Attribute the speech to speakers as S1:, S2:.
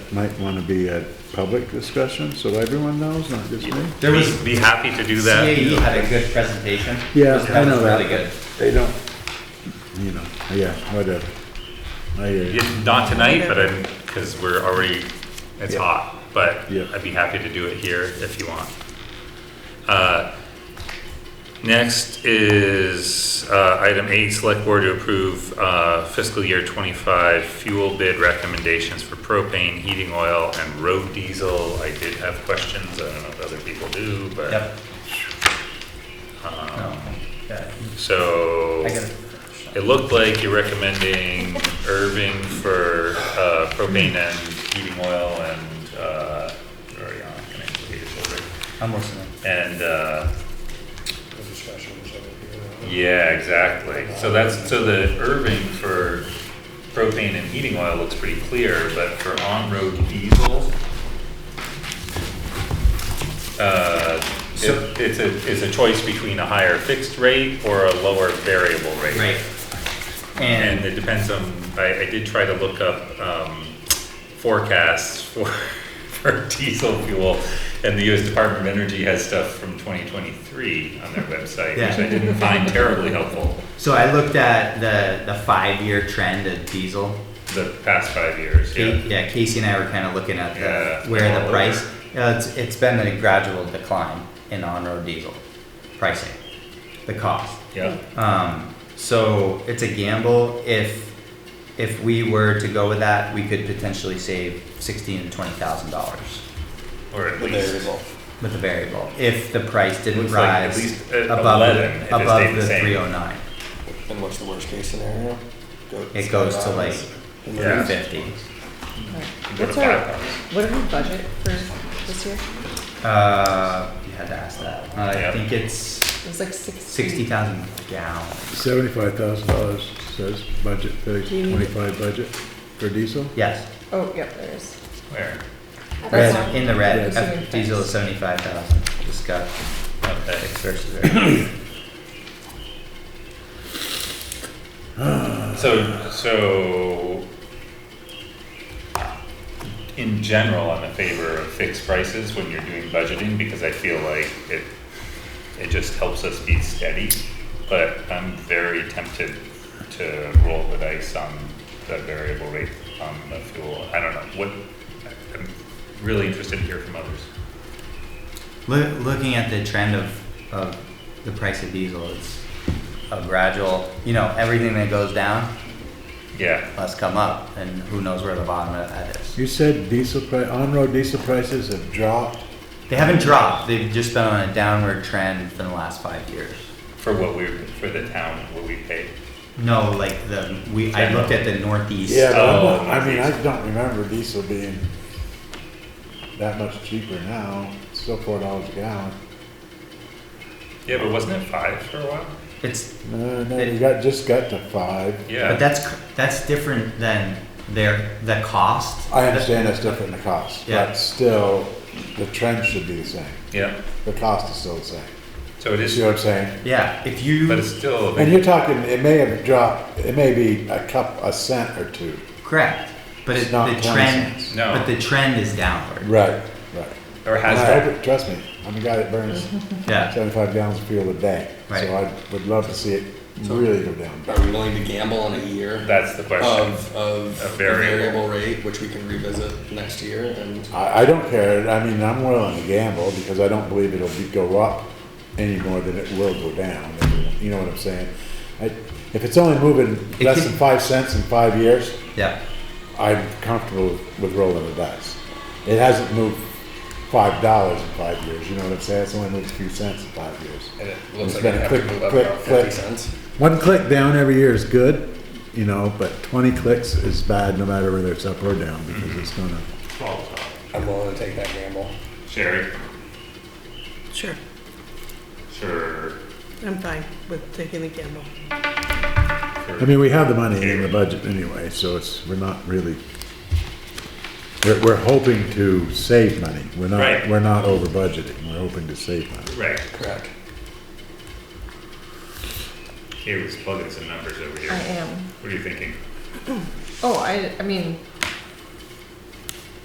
S1: might want to be a public discussion, so everyone knows, not just me.
S2: There was-
S3: Be be happy to do that.
S2: CAE had a E. good presentation.
S1: Yeah, I know
S2: was
S1: that.
S2: Really good.
S1: They don't, you know, yeah, whatever. I, uh,
S3: Yeah, Not tonight, but I'm, because we're already, it's
S1: Yeah.
S3: hot, but
S1: Yeah.
S3: I'd be happy to do it here if you want. Uh, Next is uh, item eight, select board to approve uh, fiscal year twenty-five fuel bid recommendations for propane, heating oil, and road diesel. I did have questions, I don't know if other people do, but,
S2: Yep.
S3: Uh-huh.
S2: No, yeah,
S3: so.
S2: I get it.
S3: It looked like you're recommending Irving for uh, propane and heating oil and, uh, where are you on? Can I see your shoulder?
S2: I'm listening.
S3: And, uh,
S4: The discussion was over here.
S3: yeah, exactly. So that's, so the Irving for propane and heating oil looks pretty clear, but for on-road diesel, uh,
S2: So-
S3: it- it's a, it's a choice between a higher fixed rate or a lower variable rate.
S2: Right.
S3: And
S2: And
S3: it depends on, I, I did try to look up, um, forecasts for, for diesel fuel. And the US Department of Energy has stuff from twenty twenty-three on their website, which I
S2: Yeah.
S3: didn't find terribly helpful,
S2: so I looked at the, the five-year trend of diesel.
S3: the past five years,
S2: Ca-
S3: yeah.
S2: Yeah, Casey and I were kind of looking at
S3: Yeah. Oh,
S2: the, where
S3: All
S2: the price, uh, it's, it's been a gradual decline in on-road diesel pricing, the cost.
S3: Yeah,
S2: Um, so it's a gamble. If if we were to go with that, we could potentially save sixteen to twenty thousand dollars
S3: or at least,
S2: with the variable if the price didn't
S3: Looks like at
S2: rise
S3: least, uh,
S2: above
S3: 11 if it stayed
S2: above
S3: the
S2: the
S3: same.
S2: three oh. hundred nine.
S4: And what's the worst case scenario? Go-
S2: It goes to like
S4: And
S3: Yeah.
S2: three
S4: then-
S2: fifty.
S3: go to
S5: What's our,
S3: five bucks.
S5: what are we budget for this year?
S2: Uh, you had to ask that. Uh,
S3: Yeah.
S2: I think it's
S5: It was like sixty.
S2: sixty thousand gallons.
S1: seventy-five thousand dollars says budget, the
S5: Do you need-
S1: twenty-five budget for diesel?
S2: Yes,
S5: Oh, yep, there is.
S3: Where?
S5: That's
S2: red
S5: all.
S2: in the red.
S1: Yes.
S2: F- Diesel is seventy five thousand. Discuss
S3: Okay,
S2: fixed versus variable.
S3: so, so in general, I'm in favor of fixed prices when you're doing budgeting, because I feel like it, it just helps us be steady. But I'm very tempted to roll the dice on the variable rate on the fuel. I don't know, what, I'm really interested to hear from others.
S2: Loo- Looking at the trend of, of the price of diesel, it's a gradual, you know, everything that goes down
S3: Yeah,
S2: must come up, and who knows where the bottom of that is.
S1: You said diesel pri, on-road diesel prices have dropped
S2: They haven't dropped, they've just been on a downward trend for the last five years.
S3: for what we, for the town, what we pay.
S2: No, like the, we, I looked at the northeast.
S1: Yeah, but I'm not-
S3: Oh,
S1: I mean, I
S3: diesel.
S1: don't remember diesel being that much cheaper now, It's still four dollars a gallon.
S3: Yeah, but wasn't it five for a while?
S2: It's,
S1: No, no, we Uh, got, just got to five.
S3: Yeah.
S2: but that's, c- that's different than their, the cost.
S1: I understand that's different in the cost,
S2: Yeah.
S1: but still, the trend should be the same,
S3: Yeah,
S1: the cost is still the same,
S3: so it
S1: you
S3: is,
S1: see what I'm saying?
S2: Yeah, if you.
S3: but it's still,
S1: And you're talking, it may have dropped, it may be a cup, a cent or two.
S2: Correct, but
S1: It's
S2: it,
S1: not
S2: the
S1: 20
S2: trend,
S1: cents.
S3: No.
S2: but the trend is downward,
S1: Right, right.
S3: or has
S1: And I
S3: dropped.
S1: hope it- Trust me, I'm a guy that burns
S2: yeah.
S1: seventy-five gallons of fuel a day, so
S2: Right.
S1: I would love to see it really go down.
S4: Are we willing to gamble on a year
S3: That's the question.
S4: of, of
S3: A
S4: a
S3: variable.
S4: variable rate, which we can revisit next year and
S1: I, I don't care, I mean, I'm willing to gamble, because I don't believe it'll be, go up any more than it will go down, you know what I'm saying? I, if it's only moving
S2: It
S1: less
S2: can-
S1: than five cents in five years,
S2: Yeah,
S1: I'm comfortable with rolling the dice. It hasn't moved five dollars in five years, you know what I'm saying, it's only moved a few cents in five years.
S4: and it looks
S1: It's
S4: like we
S1: been a
S4: have to
S1: quick-
S4: move up
S1: quick-
S4: about
S1: quick.
S4: fifty cents.
S1: One click down every year is good, you know, but twenty clicks is bad, no matter whether it's up or down, because it's gonna,
S4: I'm willing to take that gamble.
S3: Sherry,
S6: Sure,
S3: sure,
S6: I'm fine with taking the gamble.
S1: I mean, we have the money in the budget anyway, so it's, we're not really, we're, we're hoping to save money. We're not,
S3: Right.
S1: we're not over budgeting, we're hoping to save money.
S3: right,
S4: Correct.
S3: here was plugging some numbers over
S5: I
S3: here.
S5: am.
S3: What are you thinking?
S5: Oh, I, I mean,